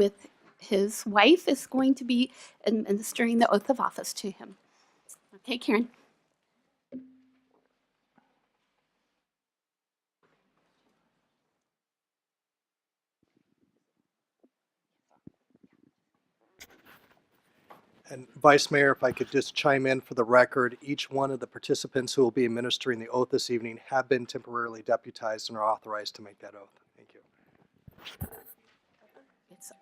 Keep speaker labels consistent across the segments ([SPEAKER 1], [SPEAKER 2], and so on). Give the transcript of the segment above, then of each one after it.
[SPEAKER 1] with his wife is going to be administering the oath of office to him. Okay, Karen?
[SPEAKER 2] And Vice Mayor, if I could just chime in for the record, each one of the participants who will be administering the oath this evening have been temporarily deputized and are authorized to make that oath. Thank you.
[SPEAKER 1] It's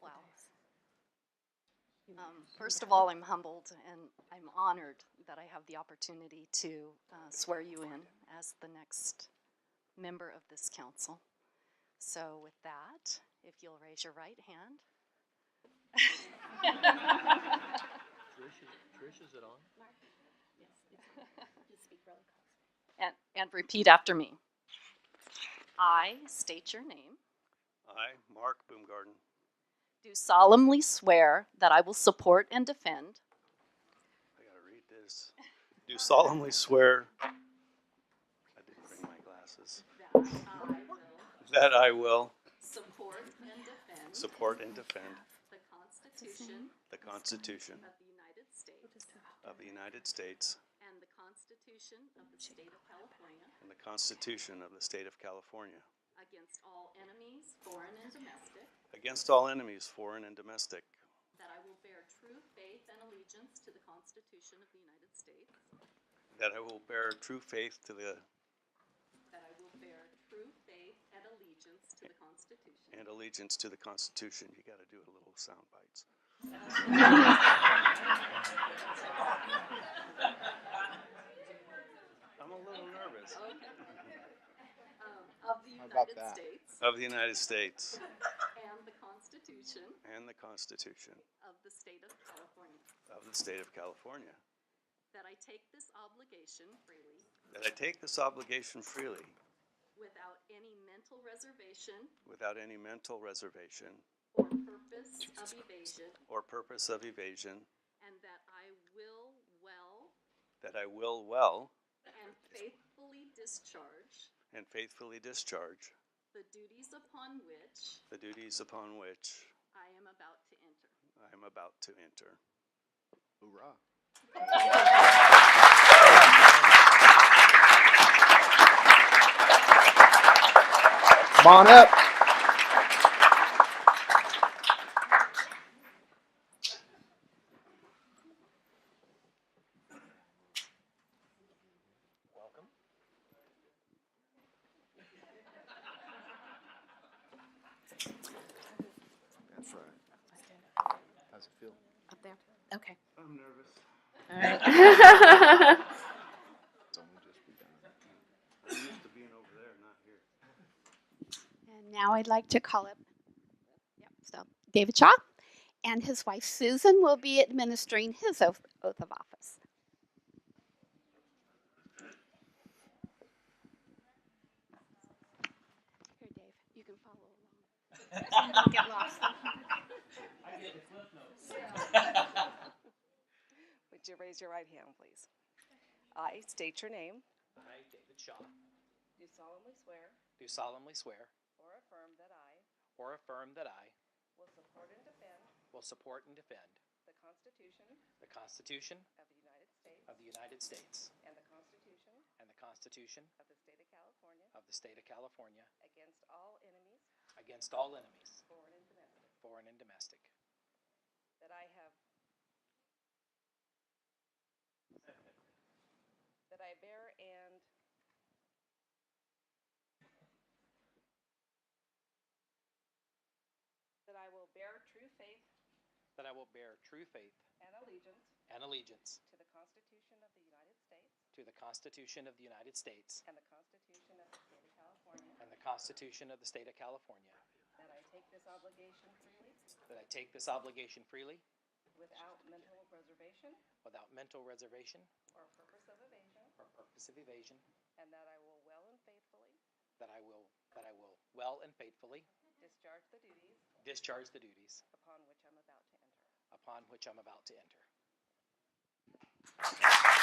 [SPEAKER 3] Wow. Um, First of all, I'm humbled and I'm honored that I have the opportunity to uh, swear you in as the next member of this council. So with that, if you'll raise your right hand.
[SPEAKER 4] Trish, is, Trish, is it on?
[SPEAKER 3] And, and repeat after me. I state your name,
[SPEAKER 4] I, Mark Boomgarden,
[SPEAKER 3] do solemnly swear that I will support and defend
[SPEAKER 4] I gotta read this. Do solemnly swear, I didn't bring my glasses, that I will
[SPEAKER 3] support and defend
[SPEAKER 4] support and defend
[SPEAKER 3] the Constitution
[SPEAKER 4] the Constitution
[SPEAKER 3] of the United States
[SPEAKER 4] of the United States
[SPEAKER 3] and the Constitution of the State of California
[SPEAKER 4] and the Constitution of the State of California
[SPEAKER 3] against all enemies, foreign and domestic,
[SPEAKER 4] against all enemies, foreign and domestic,
[SPEAKER 3] that I will bear true faith and allegiance to the Constitution of the United States,
[SPEAKER 4] that I will bear true faith to the
[SPEAKER 3] that I will bear true faith and allegiance to the Constitution
[SPEAKER 4] and allegiance to the Constitution. You gotta do a little sound bites. I'm a little nervous.
[SPEAKER 3] um, of the United States
[SPEAKER 4] Of the United States
[SPEAKER 3] and the Constitution
[SPEAKER 4] and the Constitution
[SPEAKER 3] of the State of California,
[SPEAKER 4] of the State of California.
[SPEAKER 3] that I take this obligation freely
[SPEAKER 4] That I take this obligation freely,
[SPEAKER 3] without any mental reservation
[SPEAKER 4] without any mental reservation
[SPEAKER 3] or purpose of evasion,
[SPEAKER 4] or purpose of evasion,
[SPEAKER 3] and that I will well
[SPEAKER 4] that I will well
[SPEAKER 3] and faithfully discharge
[SPEAKER 4] and faithfully discharge
[SPEAKER 3] the duties upon which
[SPEAKER 4] the duties upon which
[SPEAKER 3] I am about to enter.
[SPEAKER 4] I am about to enter. Hoorah.
[SPEAKER 2] Come on up.
[SPEAKER 5] That's right. How's it feel?
[SPEAKER 1] up there. Okay.
[SPEAKER 4] I'm nervous.
[SPEAKER 1] All right.
[SPEAKER 5] It's only just begun.
[SPEAKER 4] I'm used to being over there, not here.
[SPEAKER 1] And now I'd like to call up yep, so David Shaw and his wife Susan will be administering his oath, oath of office. Here, Dave, you can follow along. So you don't get lost.
[SPEAKER 6] Would you raise your right hand, please? I state your name.
[SPEAKER 7] I, David Shaw,
[SPEAKER 6] Do solemnly swear
[SPEAKER 7] do solemnly swear
[SPEAKER 6] or affirm that I
[SPEAKER 7] or affirm that I
[SPEAKER 6] will support and defend
[SPEAKER 7] will support and defend
[SPEAKER 6] the Constitution
[SPEAKER 7] the Constitution
[SPEAKER 6] of the United States
[SPEAKER 7] of the United States
[SPEAKER 6] and the Constitution
[SPEAKER 7] and the Constitution
[SPEAKER 6] of the State of California
[SPEAKER 7] of the State of California
[SPEAKER 6] against all enemies,
[SPEAKER 7] against all enemies,
[SPEAKER 6] foreign and domestic,
[SPEAKER 7] foreign and domestic.
[SPEAKER 6] that I have that I bear and that I will bear true faith
[SPEAKER 7] That I will bear true faith
[SPEAKER 6] and allegiance
[SPEAKER 7] and allegiance
[SPEAKER 6] To the Constitution of the United States
[SPEAKER 7] to the Constitution of the United States
[SPEAKER 6] and the Constitution of the State of California.
[SPEAKER 7] and the Constitution of the State of California.
[SPEAKER 6] That I take this obligation freely,
[SPEAKER 7] That I take this obligation freely
[SPEAKER 6] without mental reservation
[SPEAKER 7] without mental reservation
[SPEAKER 6] or purpose of evasion,
[SPEAKER 7] or purpose of evasion.
[SPEAKER 6] and that I will well and faithfully
[SPEAKER 7] That I will that I will well and faithfully
[SPEAKER 6] discharge the duties
[SPEAKER 7] discharge the duties
[SPEAKER 6] upon which I'm about to enter.
[SPEAKER 7] upon which I'm about to enter.